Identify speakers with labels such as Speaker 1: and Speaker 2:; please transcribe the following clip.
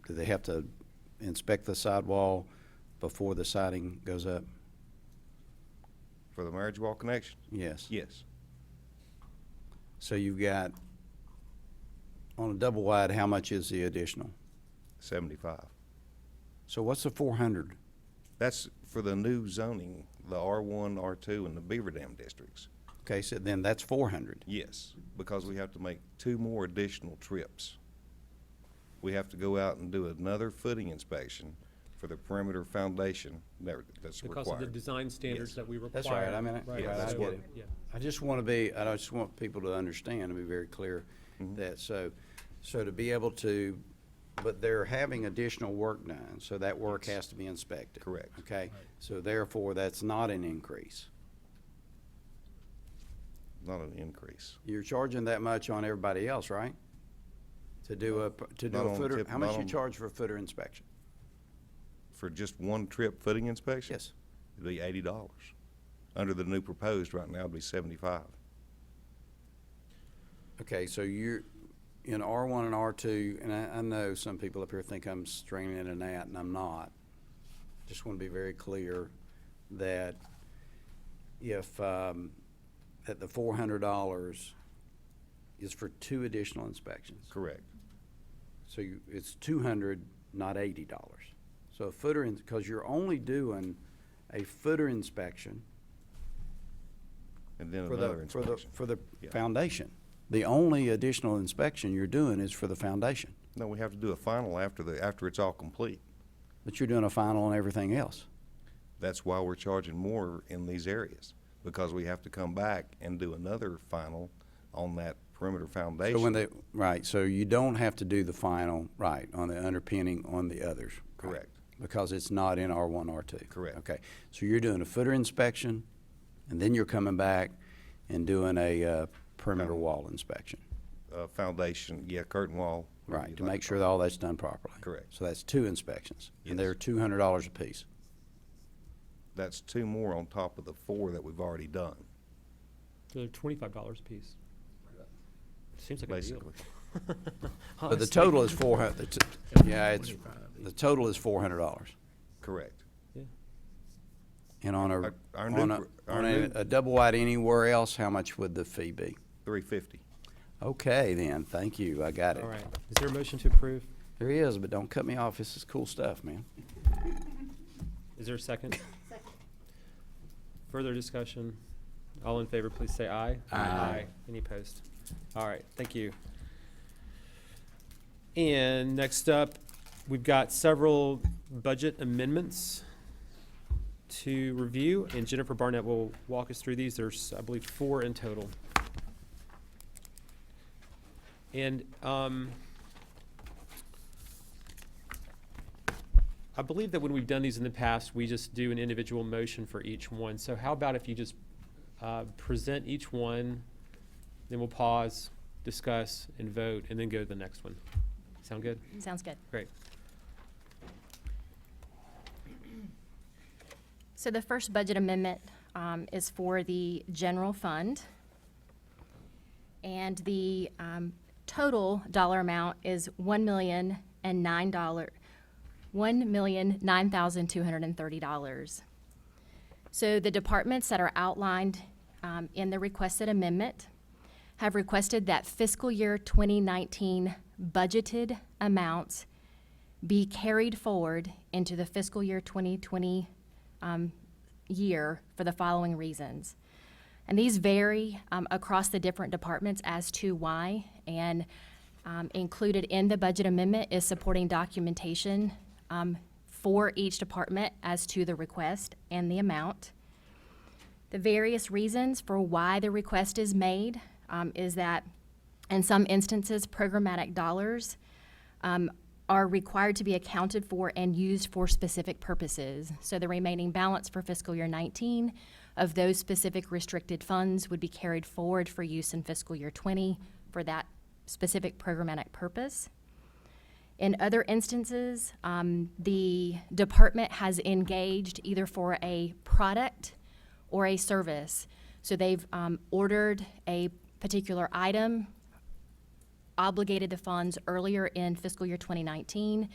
Speaker 1: Do they have to inspect the sidewall before the siding goes up?
Speaker 2: For the marriage wall connection?
Speaker 1: Yes.
Speaker 2: Yes.
Speaker 1: So you've got, on a double wide, how much is the additional?
Speaker 2: Seventy-five.
Speaker 1: So what's the four hundred?
Speaker 2: That's for the new zoning, the R one, R two, and the Beaver Dam districts.
Speaker 1: Okay, so then that's four hundred.
Speaker 2: Yes, because we have to make two more additional trips. We have to go out and do another footing inspection for the perimeter foundation that- that's
Speaker 3: Because of the
Speaker 2: required.
Speaker 3: design standards
Speaker 2: Yes.
Speaker 3: that we require.
Speaker 1: That's all right, I mean, I-
Speaker 3: Right,
Speaker 1: yeah,
Speaker 2: I
Speaker 3: so,
Speaker 2: get it.
Speaker 3: yeah.
Speaker 1: I just want to be, I just want people to understand and be very clear that, so, so to be able to, but they're having additional work done, so that work has to be inspected.
Speaker 2: Correct.
Speaker 1: Okay, so therefore, that's not an increase.
Speaker 2: Not an increase.
Speaker 1: You're charging that much on everybody else, right? To do a, to do
Speaker 2: Not
Speaker 1: a
Speaker 2: on
Speaker 1: footer,
Speaker 2: tip-
Speaker 1: how much
Speaker 2: not
Speaker 1: you
Speaker 2: on-
Speaker 1: charge for a footer inspection?
Speaker 2: For just one trip footing inspection?
Speaker 1: Yes.
Speaker 2: It'd be eighty dollars. Under the new proposed right now, it'd be seventy-five.
Speaker 1: Okay, so you're in R one and R two, and I, I know some people up here think I'm stringing it and that, and I'm not. Just want to be very clear that if, um, that the four hundred dollars is for two additional inspections.
Speaker 2: Correct.
Speaker 1: So you, it's two hundred, not eighty dollars. So a footer, because you're only doing a footer inspection
Speaker 2: And then
Speaker 1: for
Speaker 2: another
Speaker 1: the, for the,
Speaker 2: inspection.
Speaker 1: for the
Speaker 2: Yeah.
Speaker 1: foundation. The only additional inspection you're doing is for the foundation.
Speaker 2: No, we have to do a final after the, after it's all complete.
Speaker 1: But you're doing a final on everything else.
Speaker 2: That's why we're charging more in these areas, because we have to come back and do another final on that perimeter
Speaker 1: So when
Speaker 2: foundation.
Speaker 1: they, right, so you don't have to do the final, right, on the underpinning on the others. right?
Speaker 2: Correct.
Speaker 1: Because it's not in R one, R two.
Speaker 2: Correct.
Speaker 1: Okay, so you're doing a footer inspection, and then you're coming back and doing a, uh, perimeter wall inspection.
Speaker 2: Uh, foundation, yeah, curtain wall. whatever
Speaker 1: Right,
Speaker 2: you'd
Speaker 1: to
Speaker 2: like
Speaker 1: make
Speaker 2: to
Speaker 1: sure that all that's done properly.
Speaker 2: Correct.
Speaker 1: So that's two inspections, and they're
Speaker 2: Yes.
Speaker 1: two hundred dollars apiece.
Speaker 2: call- That's two more on top of the four that we've already done,
Speaker 3: So they're twenty-five dollars a piece. Seems like a deal.
Speaker 2: basically.
Speaker 1: But the
Speaker 3: Honestly.
Speaker 1: total is four hundred, yeah, it's, the total is four hundred dollars.
Speaker 2: Correct.
Speaker 3: Yeah.
Speaker 1: And on a,
Speaker 2: Our- our new
Speaker 1: on a,
Speaker 2: pr- our
Speaker 1: on a,
Speaker 2: new-
Speaker 1: a double wide anywhere else, how much would the fee be?
Speaker 2: Three fifty.
Speaker 1: Okay, then, thank you, I got it.
Speaker 3: All right, is there a motion to approve?
Speaker 1: There he is, but don't cut me off, this is cool stuff, man.
Speaker 3: Is there a second? Second. Further discussion? All in favor, please say aye.
Speaker 1: Aye.
Speaker 3: Any opposed? All right, thank you. And next up, we've got several budget amendments to review, and Jennifer Barnett will walk us through these. There's, I believe, four in total. And, um, I believe that when we've done these in the past, we just do an individual motion for each one. So how about if you just uh, present each one, then we'll pause, discuss, and vote, and then go to the next one? Sound good?
Speaker 4: Sounds good.
Speaker 3: Great.
Speaker 4: So the first budget amendment um, is for the general fund. And the um, total dollar amount is one million and nine dollar, one million nine thousand two hundred and thirty dollars. So the departments that are outlined um, in the requested amendment have requested that fiscal year 2019 budgeted amounts be carried forward into the fiscal year 2020 um, year for the following reasons. And these vary um, across the different departments as to why. And um, included in the budget amendment is supporting documentation um, for each department as to the request and the amount. The various reasons for why the request is made um, is that, in some instances, programmatic dollars um, are required to be accounted for and used for specific purposes. So the remaining balance for fiscal year 19 of those specific restricted funds would be carried forward for use in fiscal year 20 for that specific programmatic purpose. In other instances, um, the department has engaged either for a product or a service. So they've um, ordered a particular item, obligated the funds earlier in fiscal year 2019,